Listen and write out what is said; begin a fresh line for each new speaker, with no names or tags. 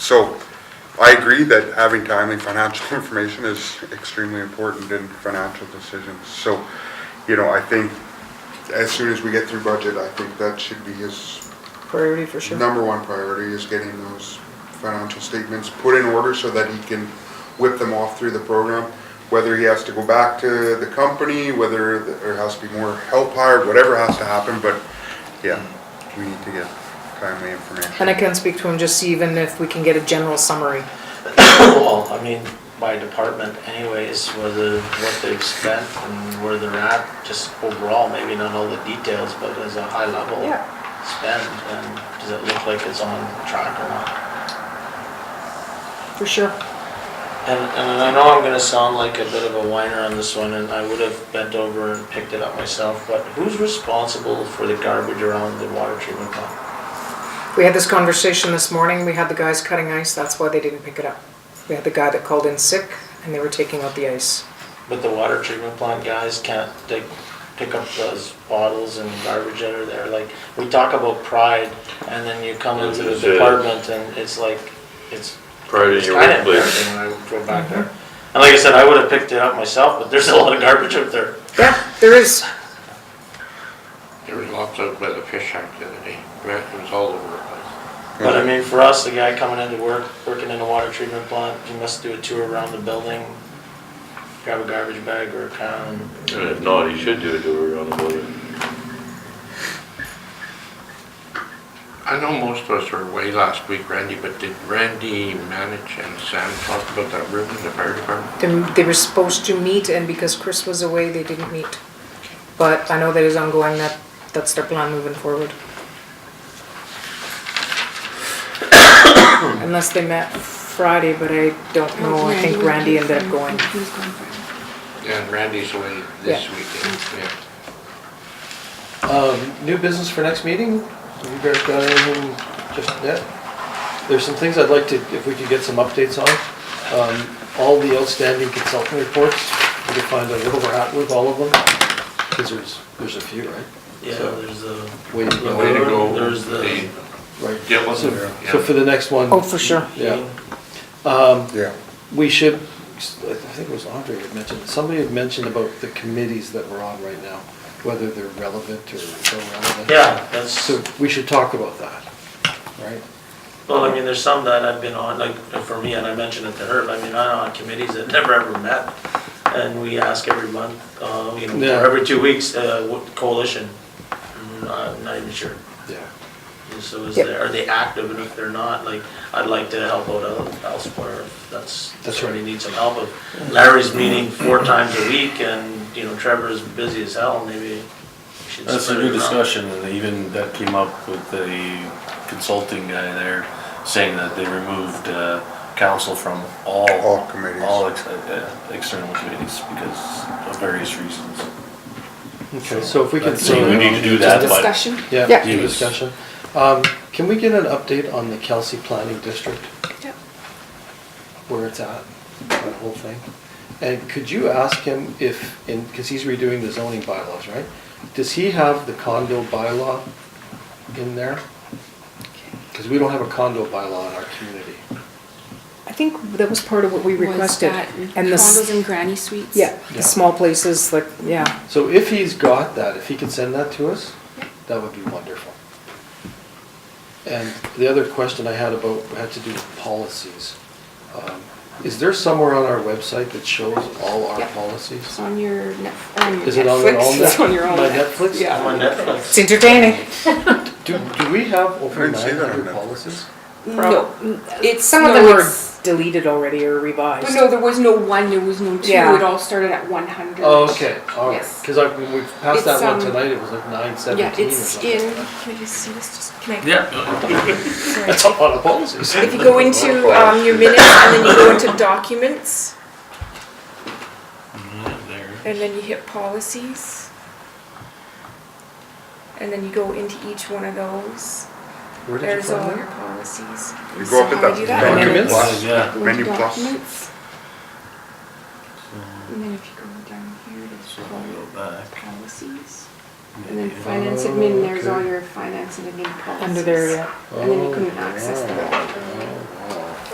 So I agree that having timely financial information is extremely important in financial decisions. So, you know, I think as soon as we get through budget, I think that should be his
priority for sure.
number one priority is getting those financial statements put in order so that he can whip them off through the program. Whether he has to go back to the company, whether there has to be more help hired, whatever has to happen, but yeah, we need to get timely
And I
information.
can speak to him, just see even if we can get a general summary.
Well, I mean, by department anyways, whether, what they've spent and where they're at, just overall, maybe not all the details, but as a high level
Yeah.
spend, and does it look like it's on track or not?
For sure.
And, and I know I'm gonna sound like a bit of a whiner on this one, and I would have bent over and picked it up myself, but who's responsible for the garbage around the water treatment plant?
We had this conversation this morning, we had the guys cutting ice, that's why they didn't pick it up. We had the guy that called in sick and they were taking out the ice.
But the water treatment plant guys can't, they pick up those bottles and garbage that are there, like, we talk about pride, and then you come into the
Is it-
department and it's like, it's,
Prior to
it's
your
kinda
workplace.
embarrassing when I go back there. And like I said, I would have picked it up myself, but there's a lot of garbage up there.
Yeah, there is.
There was lots out by the fish shack the other day. Right, It was all over the place.
But I mean, for us, the guy coming into work, working in a water treatment plant, he must do a tour around the building, grab a garbage bag or a can.
And if not, he should do a tour around the building.
I know most of us were away last week, Randy, but did Randy manage and Sam talk about that room in the fire department?
They, they were supposed to meet and because Chris was away, they didn't meet. But I know that is ongoing, that, that's their plan moving forward. Unless they met Friday, but I don't know, I think Randy ended up going.
He was going for
Yeah, and Randy's away this
Yeah.
weekend, yeah.
Um, new business for next meeting? Have you guys got anything just yet? There's some things I'd like to, if we could get some updates on. Um, all the outstanding consulting reports, we could find out where we're at with all of them. Cause there's, there's a few, right?
Yeah,
So-
there's the,
Way to go.
Way to go.
There's the-
They-
Right.
Dylan,
So
yeah.
so for the next one.
Oh, for sure.
Yeah. Um,
Yeah,
we should, I think it was Andre had mentioned, somebody had mentioned about the committees that we're on right now, whether they're relevant or irrelevant.
yeah, that's.
So we should talk about that, right?
Well, I mean, there's some that I've been on, like, for me, and I mentioned it to her, but I mean, I'm on committees that never ever met. And we ask every month, um, you know,
Yeah.
or every two weeks, uh, what coalition, Mm, I'm not even sure.
Yeah.
And So is
Yep.
there, are they active, and if they're not, like, I'd like to help out el- elsewhere, if that's,
That's
that's where they need some help. If Larry's meeting four times a week, and, you know, Trevor's busy as hell, maybe we should.
That's a
split it
good
around.
discussion, and even that came up with the consulting guy there, saying that they removed, uh, council from all.
All committees.
All ex- uh, external committees because of various reasons.
Okay, so if we can.
So we need to do that,
it.
but.
Discussion?
Yeah,
Yeah.
do discussion. Um, can we get an update on the Kelsey Planning District,
Yep.
where it's at, that whole thing? And could you ask him if, in, cause he's redoing the zoning bylaws, right? Does he have the condo bylaw in there? Cause we don't have a condo bylaw in our community.
I think that was part of what we
Was
requested.
that
And the s-
Condos and granny suites.
Yeah, the
Yeah.
small places, like, yeah.
So if he's got that, if he could send that to us, that would be wonderful. And the other question I had about, had to do with policies. Um, Is there somewhere on our website that shows all our
Yeah.
policies?
It's on your Netflix. On your
Is it on your
Netflix.
own
It's
Net-
on your own
my
Net-
Netflix?
I'm
Yeah.
on Netflix.
It's entertaining.
Do, do we have over
I didn't see
nine
that on
hundred
Netflix.
policies?
No, it's
Some of
no,
them were
it's-
deleted already or
But
revised.
no, there was no one. There was no two.
Yeah.
It all started at one hundred.
Oh, okay, all right,
Yes.
because I, when we passed that
It's,
one
um,
tonight, it was like nine
Yeah,
seventeen or
it's
something.
in. Can I just see this? Just can I?
Yeah.
sorry.
That's a lot of policies.
If you go into um, your minutes and then you go into documents
There.
and then you hit policies. And then you go into each one of those.
Where did you
There's all
find
your
that?
policies.
you
So
go up
how
at
do I do
that
that?
menu
Documents?
plus,
Yeah.
Go
menu
into
plus.
documents. And then if you go down here, there's
So we'll
all
go back.
policies. And then
Oh,
finance admin, there's all your finance and admin policies.
Under there, yeah.
And then you couldn't access them.
Oh, wow.